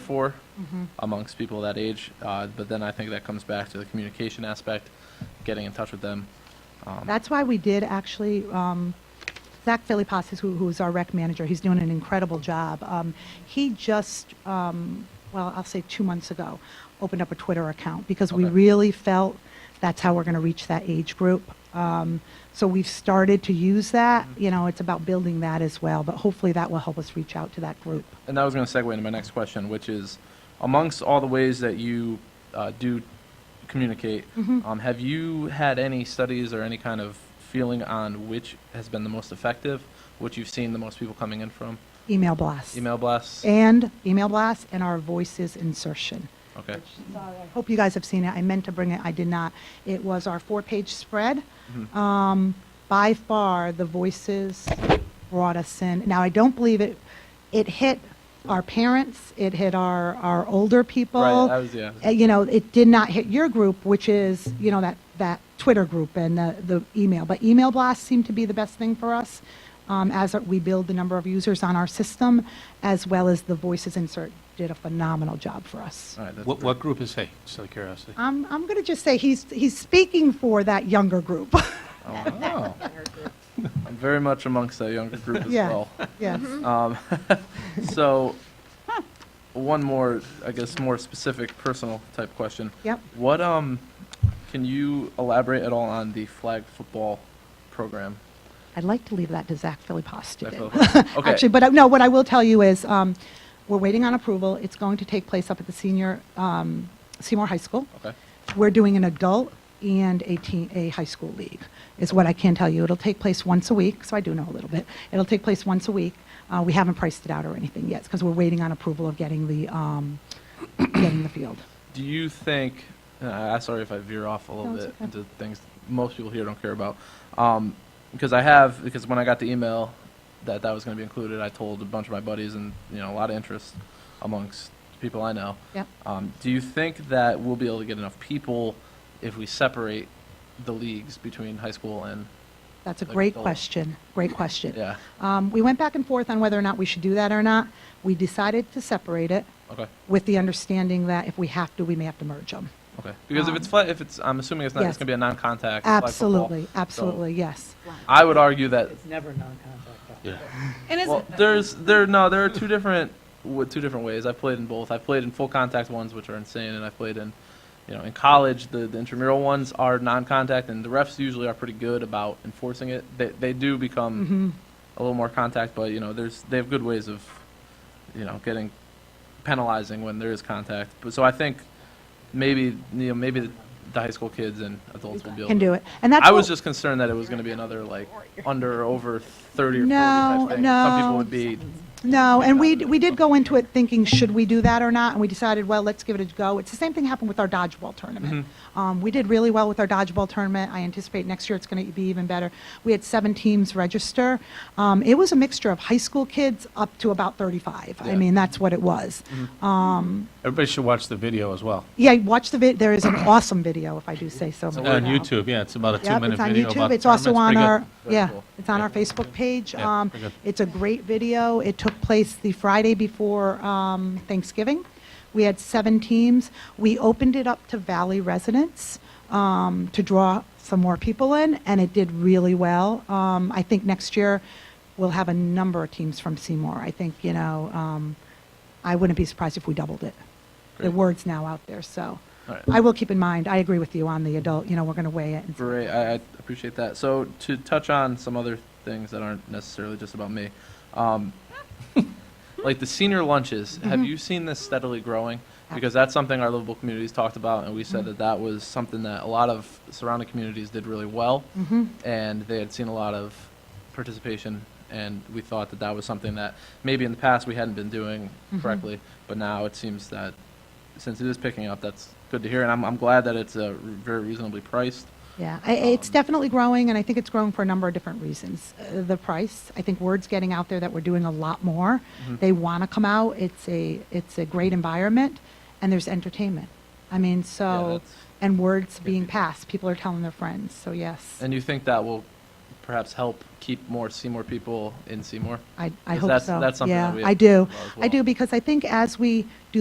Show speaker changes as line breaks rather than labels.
for
Mm-hmm.
amongst people that age. Uh, but then I think that comes back to the communication aspect, getting in touch with them. Um,
That's why we did actually, um, Zach Philippos, who, who's our rec manager, he's doing an incredible job. Um, he just, um, well, I'll say two months ago, opened up a Twitter account because we
Okay.
really felt that's how we're going to reach that age group. Um, so we've started to use that.
Mm-hmm.
You know, it's about building that as well, but hopefully that will help us reach out to that group.
and that was going to segue into my next question, which is amongst all the ways that you uh, do communicate,
Mm-hmm.
um, have you had any studies or any kind of feeling on which has been the most effective, which you've seen the most people coming in from?
Email blasts.
Email blasts?
And email blasts and our voices insertion.
Okay.
Hope you guys have seen it. I meant to bring it, I did not. It was our four-page spread.
Mm-hmm.
Um, By far, the voices brought us in. Now, I don't believe it, it hit our parents, it hit our, our older people.
Right, I was- yeah.
Uh, You know, it did not hit your group, which is, you know, that, that Twitter group and the, the email. But email blasts seem to be the best thing for us um, as we build the number of users on our system, as well as the voices insert did a phenomenal job for us.
All right, that's
What,
great.
what group is he, just out of curiosity?
I'm, I'm going to just say he's, he's speaking for that younger group.
Oh, I'm very much amongst that younger group as
Yeah.
well.
Yes.
Um, so, hmm, one more, I guess, more specific personal type question.
Yep.
What um, can you elaborate at all on the flag football program?
I'd like to leave that to Zach Philippos to
Zach
do.
Philippos. Okay.
Actually, but uh, no, what I will tell you is, um, we're waiting on approval. It's going to take place up at the senior, um, Seymour High School.
Okay.
We're doing an adult and a teen, a high school league, is what I can tell you. It'll take place once a week, so I do know a little bit. It'll take place once a week. Uh, we haven't priced it out or anything yet, because we're waiting on approval of getting the, um, getting the field.
Do you think? Uh, I'm sorry if I veer off a little
No, it's
bit
okay.
into things most people here don't care about. Um, because I have because when I got the email that that was going to be included, I told a bunch of my buddies and you know a lot of interest amongst people I know.
Yep.
Um, do you think that we'll be able to get enough people if we separate the leagues between high school and
That's a
Like
great
adult.
question, great question.
yeah?
Um, We went back and forth on whether or not we should do that or not. We decided to separate it
Okay.
with the understanding that if we have to, we may have to merge them.
Okay. Because if it's
Um,
flat, if it's I'm assuming it's not
yes.
it's going to be a non-contact. flag football.
Absolutely,
So
absolutely, yes.
I would argue that
It's never non-contact. though.
Yeah.
And is
Well, there's there no there are two different w- two different ways. I've played in both. I've played in full contact ones, which are insane, and I've played in, you know, in college the, the intramural ones are non-contact, and the refs usually are pretty good about enforcing it. They they do become
Mm-hmm.
a little more contact, but you know, there's they have good ways of, you know, getting penalizing when there is contact. But so I think maybe you know maybe the, the high school kids and adults will be able
Can
to
do it. And that's
I was
what-
just concerned that it was going to be another like under or over 30 or 40
No,
type thing. Some people
no.
would be
No, and we, we did go into it thinking, should we do that or not? And we decided, well, let's give it a go. It's the same thing happened with our dodgeball tournament.
Mm-hmm.
Um, we did really well with our dodgeball tournament. I anticipate next year it's going to be even better. We had seven teams register. Um, it was a mixture of high school kids up to about 35. I
Yeah. Mm-hmm.
mean, that's what it was. Um,
Everybody should watch the video as well.
yeah, watch the vid. There is an awesome video, if I do say so. myself.
On YouTube, yeah, it's about a
Yep,
two-minute
it's on
video about
YouTube.
the
It's also on
tournament. It's
our,
pretty
Very
yeah,
cool.
it's on our
Yeah.
Facebook page.
Yeah,
Um,
pretty good.
It's a great video. It took place the Friday before um, Thanksgiving. We had seven teams. We opened it up to Valley residents um, to draw some more people in, and it did really well. Um, I think next year, we'll have a number of teams from Seymour. I think, you know, um, I wouldn't be surprised if we doubled it. The
Great.
word's now out there, so.
All right.
I will keep in mind, I agree with you on the adult, you know, we're going to weigh it and see
great. I, I appreciate that. So to touch on some other things that aren't necessarily just about me, um, like the senior lunches.
Mm-hmm.
Have you seen this steadily growing? Because that's something our livable communities talked about, and we said that that was something that a lot of surrounding communities did really well,
Mm-hmm.
and they had seen a lot of participation. And we thought that that was something that maybe in the past we hadn't been doing correctly, but now it seems that since it is picking up, that's good to hear. And I'm, I'm glad that it's uh, very reasonably priced.
Yeah, I- it's
Um,
definitely growing, and I think it's growing for a number of different reasons. Uh, The price, I think word's getting out there that we're doing a lot more.
Mm-hmm.
They want to come out, it's a, it's a great environment, and there's entertainment. I mean, so,
that's-
and word's being passed, people are telling their friends, so yes.
And you think that will perhaps help keep more Seymour people in Seymour?
I, I
'Cause
hope
that's-
so.
that's something that
Yeah,
we have
I
to
do.
think about as
I do,
well.
because I think as we do